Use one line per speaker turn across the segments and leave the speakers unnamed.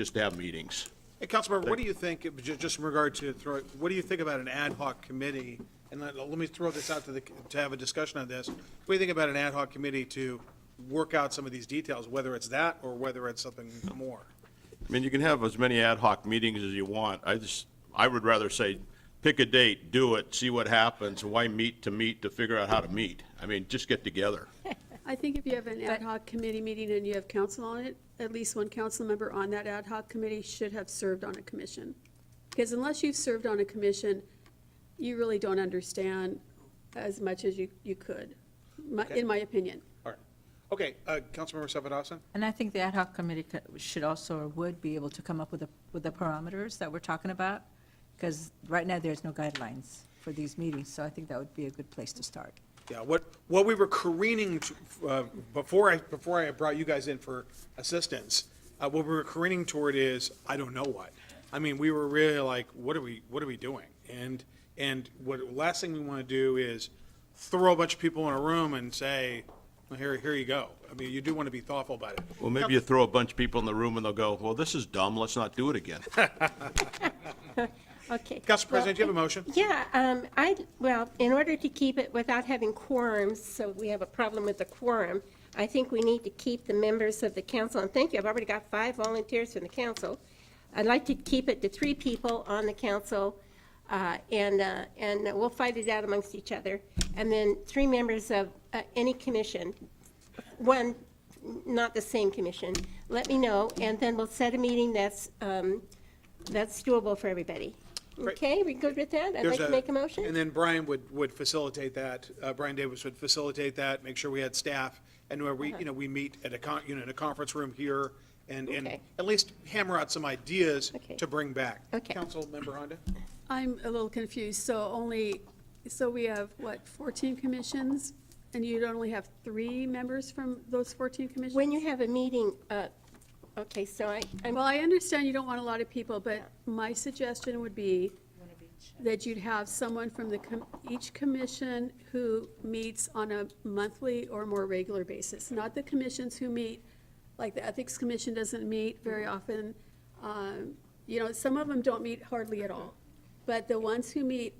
just to have meetings.
Hey, Councilmember, what do you think, ju- just in regard to, throw- what do you think about an ad hoc committee? And let, let me throw this out to the, to have a discussion on this. What do you think about an ad hoc committee to work out some of these details, whether it's that or whether it's something more?
I mean, you can have as many ad hoc meetings as you want. I just, I would rather say, pick a date, do it, see what happens. Why meet to meet to figure out how to meet? I mean, just get together.
I think if you have an ad hoc committee meeting and you have council on it, at least one council member on that ad hoc committee should have served on a commission. Because unless you've served on a commission, you really don't understand as much as you, you could, my- in my opinion.
All right. Okay, uh, Councilmember Sapadowson?
And I think the ad hoc committee co- should also, or would be able to come up with the, with the parameters that we're talking about, because right now, there's no guidelines for these meetings, so I think that would be a good place to start.
Yeah, what, what we were careening, to- uh, before I, before I brought you guys in for assistance, uh, what we were careening toward is, I don't know what. I mean, we were really like, what are we, what are we doing? And, and what, last thing we want to do is throw a bunch of people in a room and say, well, here, here you go. I mean, you do want to be thoughtful about it.
Well, maybe you throw a bunch of people in the room and they'll go, well, this is dumb, let's not do it again.
Okay.
Council
Well,
President, do you have a motion?
Yeah, um, I, well, in order to keep it without having quorums, so we have a problem with the quorum, I think we need to keep the members of the council, and thank you, I've already got five volunteers from the council. I'd like to keep it to three people on the council, uh, and, uh, and we'll fight it out amongst each other. And then three members of uh, any commission, one, not the same commission, let me know, and then we'll set a meeting that's, um, that's doable for everybody.
Great.
Okay, we good with that? I'd like
There's
to make a motion.
And then Brian would, would facilitate that, uh, Brian Davis would facilitate that, make sure we had staff, and where
Uh-huh.
we, you know, we meet at a con, you know, in a conference room here, and, and
Okay.
at least hammer out some ideas
Okay.
to bring back.
Okay.
Councilmember Honda?
I'm a little confused, so only, so we have, what, 14 commissions? And you'd only have three members from those 14 commissions?
When you have a meeting, uh, okay, so I, uh, I'm,
Well, I understand you don't want a lot of people, but my suggestion would be that you'd have someone from the, com- each commission who meets on a monthly or more regular basis, not the commissions who meet, like the Ethics Commission doesn't meet very often. Um, You know, some of them don't meet hardly at all. But the ones who meet,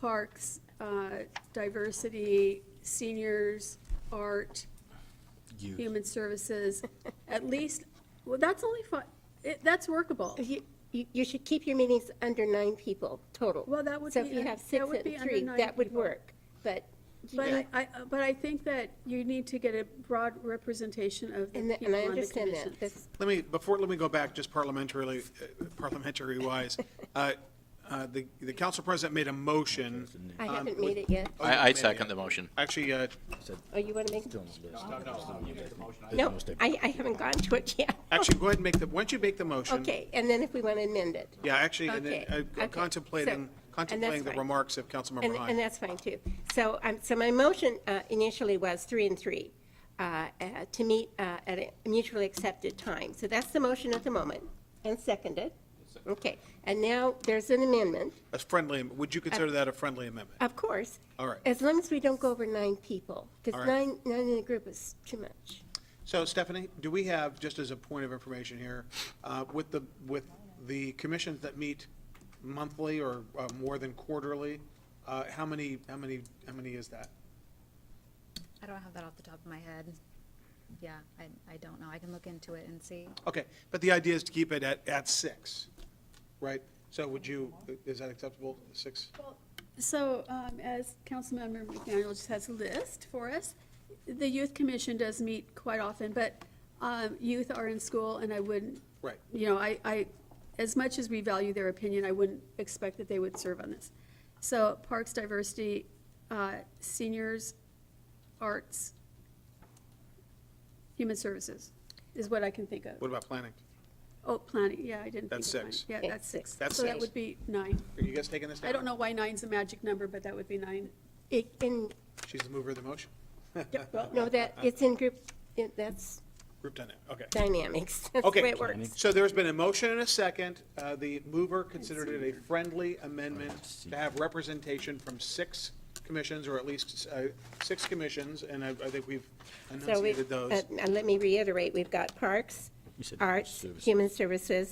Parks, uh, Diversity, Seniors, Art, Human Services, at least, well, that's only fi- it that's workable.
you, you you should keep your meetings under nine people total.
Well, that would
So
be
if you
un-
have
that
six
would be
and
under
three,
nine
that would
people.
work, but, you
But
know,
I, I- but I think that you need to get a broad representation of
and
the
th- and
people
I
on the
understand that.
commissions.
That's-
Let me, before, let me go back just parliamentarily, uh, parliamentary wise. Uh, uh, The, the council president made a motion.
I
um,
haven't
with-
made it yet.
Oh, you haven't
I, I
made it yet.
second the motion.
Actually, uh,
Oh, you want to make? it? No, I, I haven't gone to it yet.
actually, go ahead and make the, why don't you make the motion?
Okay, and then if we want to amend it.
Yeah, actually, and then,
Okay,
uh,
okay. So- and
contemplating,
that's
contemplating the
fine.
remarks of Councilmember
And,
Hahn.
and that's fine too. So, um, so my motion uh, initially was three and three, uh, uh, to meet uh, at a mutually accepted time. So that's the motion at the moment, and seconded. Okay, and now there's an amendment,
A friendly, would you
Uh,
consider that a friendly amendment?
of course.
All right.
As long as we don't go over nine people,
All
because
right.
nine, nine in a group is too much.
So Stephanie, do we have, just as a point of information here, uh, with the, with the commissions that meet monthly or uh, more than quarterly, uh, how many, how many, how many is that?
I don't have that off the top of my head. Yeah, I, I don't know. I can look into it and see.
Okay, but the idea is to keep it at, at six, right? So would you, is that acceptable, six?
So um, as Councilmember McDaniel just has a list for us, the Youth Commission does meet quite often, but um, youth are in school and I wouldn't.
Right.
You know, I, I, as much as we value their opinion, I wouldn't expect that they would serve on this. So Parks, Diversity, uh, Seniors, Arts, Human Services is what I can think of.
What about planning?
Oh, planning, yeah, I didn't think of
That's
planning.
six.
Yeah,
Okay,
that's six.
That's
So that
six.
would be nine.
Are you guys taking this down?
I don't know why nine's a magic number, but that would be nine.
It, in,
She's the mover of the motion.
no, that, it's in group, it- that's
Group done it, okay.
dynamics. That's the
Okay,
way it works.
so there's been a motion and a second. Uh, The mover considered it a friendly amendment to have representation from six commissions, or at least uh, six commissions, and I I think we've
So we,
enunciated those.
uh, now let me reiterate, we've got Parks, Arts, Human Services,